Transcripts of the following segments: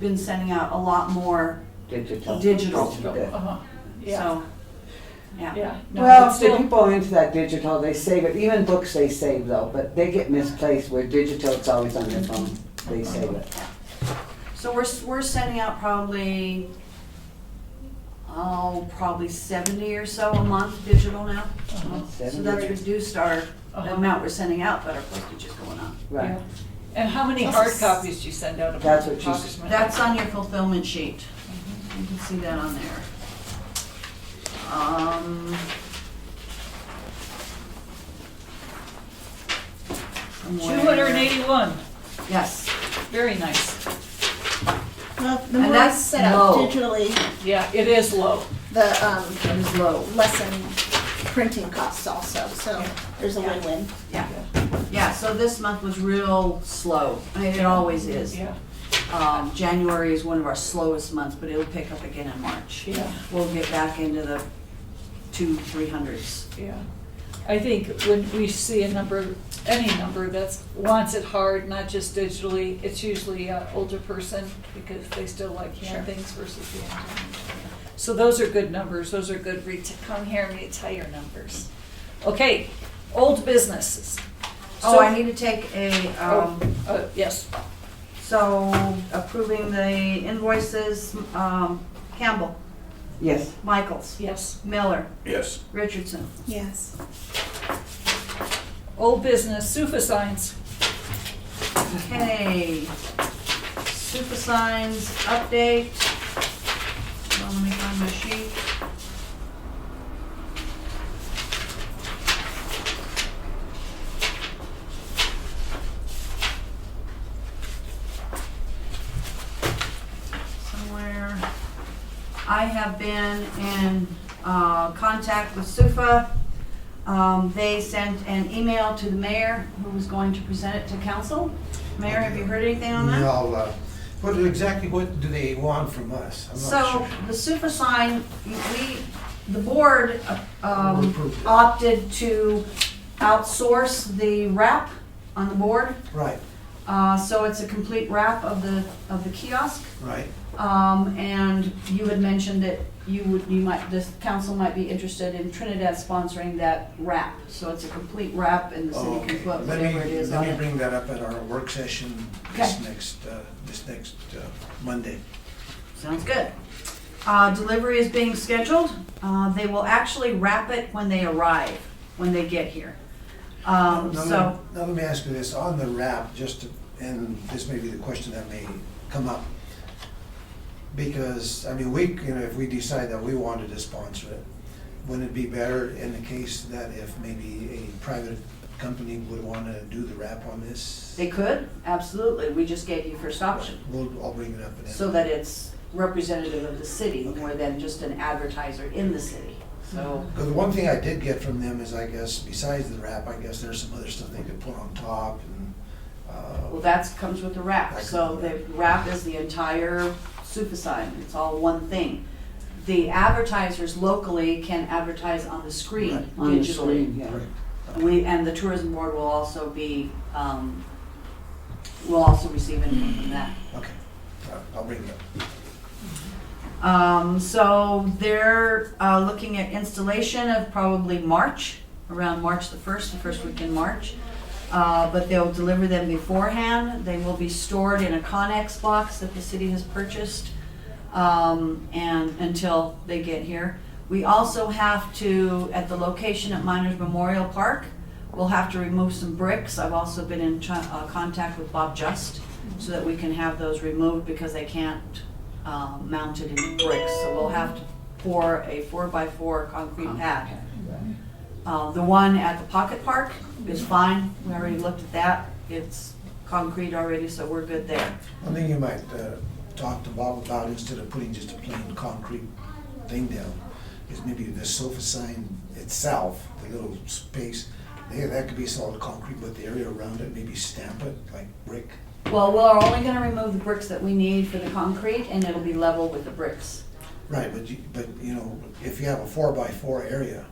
been sending out a lot more, Digital. Digital. Uh-huh. Yeah, so, yeah. yeah. No, Well, it's the still- people are into that digital, they save it, even books they save though, but they get misplaced where digital, it's always on their phone, they save it. So we're, s- we're sending out probably, oh, probably seventy or so a month digital now. Uh-huh. So that's reduced our Uh-huh. amount we're sending out, but our postage is going up. Right, Yeah. And how many hard copies do you send out? a month, That's what she said. Congressman? That's on your fulfillment sheet. Mm-hmm. You can see that on there. Um. somewhere- 281, Yes, very nice. Well, the And more that's it's set up low. digitally, Yeah, it is low. the um, it is low. lessen printing costs also, so there's a Yeah. win-win. Yeah, yeah, so this month was real slow. I mean, it always is. Yeah, Um, January is one of our slowest months, but it'll pick up again in March. yeah, We'll get back into the two, three hundreds. yeah. I think when we see a number, any number that's, wants it hard, not just digitally, it's usually an older person because they still like hand things versus the hand. So those are good numbers, those are good, ret- come here and retire numbers. Okay, old businesses. Oh, I So- need to take a, Oh, um, uh, yes, so approving the invoices, um, Campbell, yes, Michaels, yes. Miller, Yes. Richardson. Yes. Old business, Sufisines. Okay, super signs update. Hold on, Let me find my sheet. Somewhere. I have been in uh, contact with SUFA. Um, They sent an email to the mayor who was going to present it to council. Mayor, have you heard anything on that? No, uh, what, exactly what do they want from us? I'm not So sure. the super sign, we, the board um, Approved it. opted to outsource the wrap on the board. Right, Uh, So it's a complete wrap of the, of the kiosk. right. Um, and you had mentioned that you would, you might, this council might be interested in Trinidad sponsoring that wrap. So it's a complete wrap and the city can Oh, Okay. put Let whatever it me, is let on me it. bring that up at our work session this next, uh, this next uh, Monday. Sounds good. Uh, delivery is being scheduled. Uh, they will actually wrap it when they arrive, when they get here. Um, Now, let- so, Now, let me ask you this, on the wrap, just, to- and this may be the question that may come up. Because, I mean, we, you know, if we decide that we wanted to sponsor it, wouldn't it be better in the case that if maybe a private company would want to do the wrap on this? they could, absolutely. We just gave you first option. We'll, I'll bring it up in. So that it's representative of the city more than just an advertiser in the city. So, Mm-hmm. But the one thing I did get from them is, I guess, besides the wrap, I guess there's some other stuff they could put on top and, well, uh, that's comes with the wrap. So the wrap is the entire super sign. It's all one thing. The advertisers locally can advertise on the right, screen on the digitally. screen, yeah. We, and the tourism board will also be, um, will also receive input from that. okay, I'll- I'll bring it up. Um, so they're, uh, looking at installation of probably March, around March the first, the first week in March. Uh, but they'll deliver them beforehand. They will be stored in a Connex box that the city has purchased, um, and until they get here. We also have to, at the location at Miners Memorial Park, we'll have to remove some bricks. I've also been in chi- uh, contact with Bob Just, so that we can have those removed because they can't um, mounted in bricks, so we'll have to pour a four-by-four concrete pad. Uh, The one at the pocket park is fine, we already looked at that, it's concrete already, so we're good there. One thing you might uh, talk to Bob about, instead of putting just a plain concrete thing down, is maybe the sofa sign itself, the little space, there, that could be solid concrete, but the area around it, maybe stamp it like brick. Well, we're only gonna remove the bricks that we need for the concrete, and it'll be level with the bricks. Right, but you, but you know, if you have a four by four area,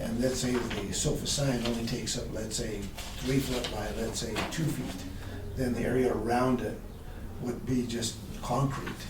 and let's say the sofa sign only takes up, let's say, three foot by, let's say, two feet, then the area around it would be just concrete.